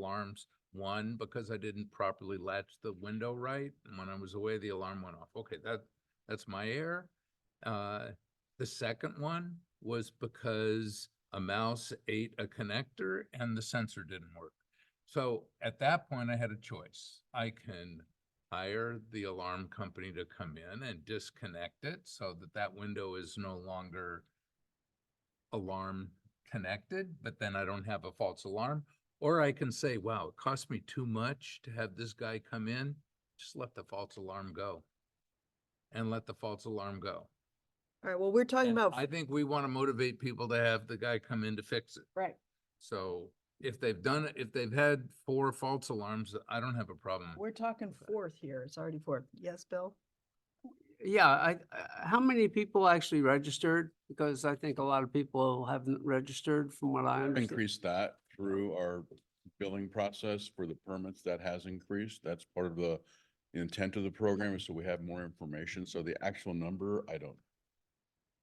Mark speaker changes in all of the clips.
Speaker 1: alarms. One, because I didn't properly latch the window right, and when I was away, the alarm went off. Okay, that, that's my error. Uh, the second one was because a mouse ate a connector and the sensor didn't work. So at that point, I had a choice. I can hire the alarm company to come in and disconnect it so that that window is no longer alarm connected, but then I don't have a false alarm. Or I can say, wow, it cost me too much to have this guy come in, just let the false alarm go. And let the false alarm go.
Speaker 2: All right, well, we're talking
Speaker 1: And
Speaker 2: about,
Speaker 1: I think we want to motivate people to have the guy come in to fix it.
Speaker 2: right,
Speaker 1: So if they've done, it, if they've had four false alarms, I don't have a problem.
Speaker 2: we're talking fourth here. It's already fourth. Yes, Bill?
Speaker 3: Yeah, I, I- how many people actually registered? Because I think a lot of people haven't registered from what I understand.
Speaker 4: Increase that through our billing process for the permits. That has increased. That's part of the the intent of the program is so we have more information. So the actual number, I don't.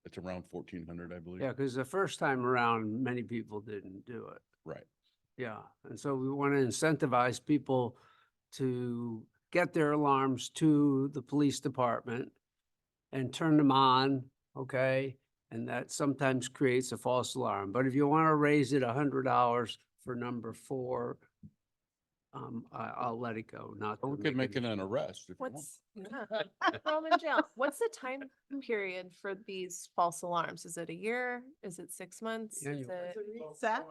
Speaker 4: It's around fourteen hundred, I believe.
Speaker 3: Yeah, because the first time around, many people didn't do it.
Speaker 4: Right.
Speaker 3: Yeah, and so we want to incentivize people to get their alarms to the police department and turn them on, okay? And that sometimes creates a false alarm. But if you want to raise it a hundred dollars for number four, um, I, I'll let it go, not.
Speaker 4: Or
Speaker 3: to
Speaker 4: we could make
Speaker 3: an-
Speaker 4: it an arrest if you want.
Speaker 5: What's, Roman jail, what's the time period for these false alarms? Is it a year? Is it six months?
Speaker 3: Yeah,
Speaker 5: Is
Speaker 3: you-
Speaker 5: it?
Speaker 2: Set?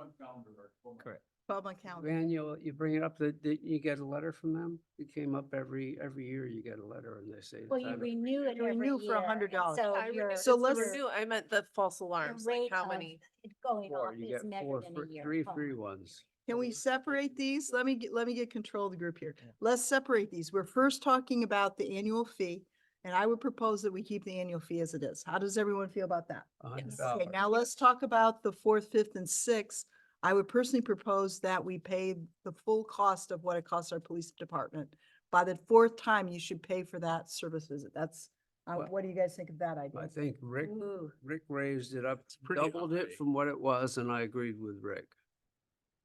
Speaker 2: Twelve month calendar.
Speaker 3: Van, you, you bring it up, that, that you get a letter from them? It came up every, every year you get a letter and they say.
Speaker 6: Well,
Speaker 3: that
Speaker 6: you
Speaker 3: I-
Speaker 6: renew it
Speaker 2: You
Speaker 6: every
Speaker 2: renew
Speaker 6: year.
Speaker 2: for $100.
Speaker 6: and
Speaker 5: I
Speaker 6: So
Speaker 5: re-
Speaker 6: your.
Speaker 5: it's
Speaker 2: So
Speaker 5: the
Speaker 2: let's-
Speaker 5: renew- I meant the false alarms, like
Speaker 6: rate
Speaker 5: how
Speaker 6: of
Speaker 5: many?
Speaker 6: it Going
Speaker 3: Four,
Speaker 6: off
Speaker 3: you
Speaker 6: is
Speaker 3: get four
Speaker 6: measured in
Speaker 3: free-
Speaker 6: a year.
Speaker 3: three
Speaker 6: Oh,
Speaker 3: free ones.
Speaker 2: Can we separate these? Let me, get let me get control of the group here. Let's separate these. We're first talking about the annual fee. And I would propose that we keep the annual fee as it is. How does everyone feel about that?
Speaker 3: a hundred
Speaker 5: Yes.
Speaker 3: dollars.
Speaker 2: Okay, now let's talk about the fourth, fifth, and sixth. I would personally propose that we pay the full cost of what it costs our police department. By the fourth time, you should pay for that service visit. That's, uh,
Speaker 3: Well,
Speaker 2: what do you guys think of that idea?
Speaker 3: I think Rick,
Speaker 2: Ooh.
Speaker 3: Rick raised it up,
Speaker 1: pretty
Speaker 3: doubled
Speaker 1: high.
Speaker 3: it from what it was and I agreed with Rick.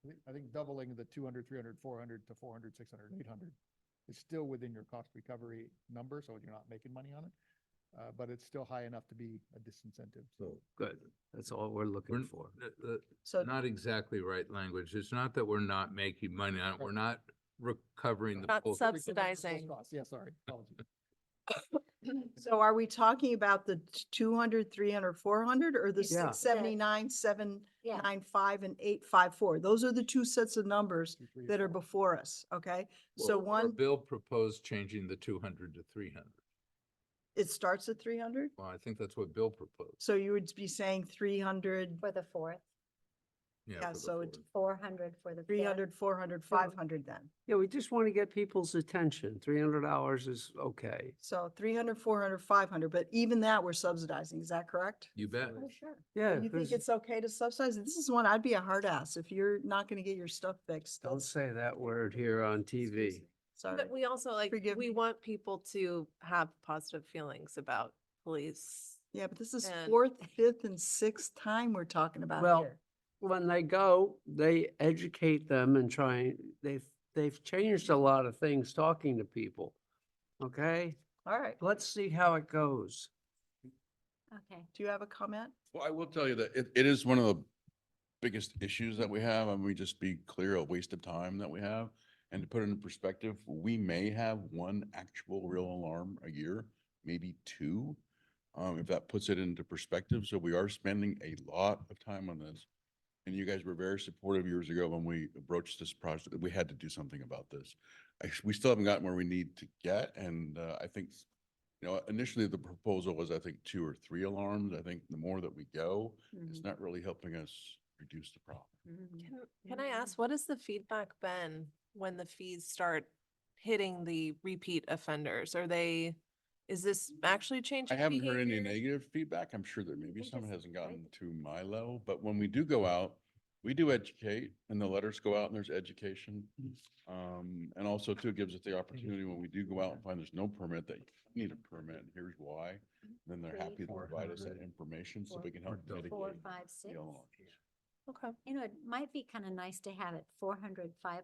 Speaker 7: I think, I think doubling the 200, 300, 400 to 400, 600, 800 is still within your cost recovery number, so you're not making money on it. Uh, but it's still high enough to be a disincentive.
Speaker 1: So
Speaker 3: Good. That's all we're looking
Speaker 1: We're-
Speaker 3: for.
Speaker 1: the- the-
Speaker 2: So,
Speaker 1: Not exactly right language. It's not that we're not making money on it. We're not recovering the.
Speaker 5: Not
Speaker 1: full-
Speaker 5: sub-
Speaker 7: Recover the full
Speaker 5: Subsidizing.
Speaker 7: cost. Yeah, sorry, apologies.
Speaker 2: so are we talking about the t- 200, 300, 400, or the
Speaker 3: Yeah.
Speaker 2: six seventy-nine, seven
Speaker 6: Yeah.
Speaker 2: nine five, and eight five four? Those are the two sets of numbers
Speaker 7: Two, three,
Speaker 2: that are
Speaker 7: four.
Speaker 2: before us, okay? So
Speaker 1: Or
Speaker 2: one,
Speaker 1: Bill proposed changing the two hundred to three hundred.
Speaker 2: it starts at three hundred,
Speaker 1: Well, I think that's what Bill proposed.
Speaker 2: so you would be saying three hundred,
Speaker 6: For the fourth,
Speaker 2: yeah,
Speaker 1: for the
Speaker 2: so it-
Speaker 1: Ford.
Speaker 6: four hundred for the.
Speaker 2: three
Speaker 6: fifth.
Speaker 2: hundred, four hundred, five hundred then.
Speaker 3: Yeah, we just want to get people's attention. Three hundred dollars is okay.
Speaker 2: So 300, 400, 500, but even that we're subsidizing, is that correct?
Speaker 1: You bet.
Speaker 6: Oh, sure.
Speaker 3: Yeah.
Speaker 2: You think
Speaker 3: 'cause-
Speaker 2: it's okay to subsidize? This is one, I'd be a hard ass if you're not gonna get your stuff fixed.
Speaker 3: Don't
Speaker 2: that's-
Speaker 3: say that word here on
Speaker 2: Excuse
Speaker 3: TV.
Speaker 2: me, Sorry.
Speaker 5: But we also like,
Speaker 2: Forgive
Speaker 5: we
Speaker 2: me.
Speaker 5: want people to have positive feelings about police.
Speaker 2: Yeah, but this is
Speaker 5: and-
Speaker 2: fourth, fifth, and sixth time we're talking about
Speaker 3: Well,
Speaker 2: here.
Speaker 3: when they go, they educate them and try, they've, they've changed a lot of things talking to people. Okay,
Speaker 2: All right,
Speaker 3: let's see how it goes.
Speaker 6: Okay.
Speaker 2: do you have a comment?
Speaker 4: Well, I will tell you that it, it is one of the biggest issues that we have, and we just be clear, a waste of time that we have. And to put it in perspective, we may have one actual real alarm a year, maybe two. Um, if that puts it into perspective, so we are spending a lot of time on this. And you guys were very supportive years ago when we broached this project, that we had to do something about this. I s- we still haven't gotten where we need to get, and, uh, I think you know, initially the proposal was, I think, two or three alarms. I think the more that we go,
Speaker 6: Mm-hmm.
Speaker 4: it's not really helping us reduce the problem.
Speaker 5: Can, can I ask, what has the feedback been when the fees start hitting the repeat offenders? Are they, is this actually
Speaker 4: I
Speaker 5: changing?
Speaker 4: haven't heard any
Speaker 5: behavior?
Speaker 4: negative feedback. I'm sure there may be
Speaker 6: think
Speaker 4: some, it
Speaker 6: it's
Speaker 4: hasn't
Speaker 6: great.
Speaker 4: gotten to my level, but when we do go out, we do educate and the letters go out and there's education. Um, and also too, it gives us the opportunity when we do go out and find there's no permit that you need a permit and here's why. Then they're
Speaker 6: Three,
Speaker 4: happy to
Speaker 6: four,
Speaker 4: provide us that
Speaker 3: hundred.
Speaker 4: information so
Speaker 6: Four,
Speaker 4: we can help
Speaker 1: four,
Speaker 4: mitigate.
Speaker 6: Four, five,
Speaker 4: the
Speaker 6: six.
Speaker 4: alarms.
Speaker 5: Okay.
Speaker 6: You know, it might be kind of nice to have it four hundred, five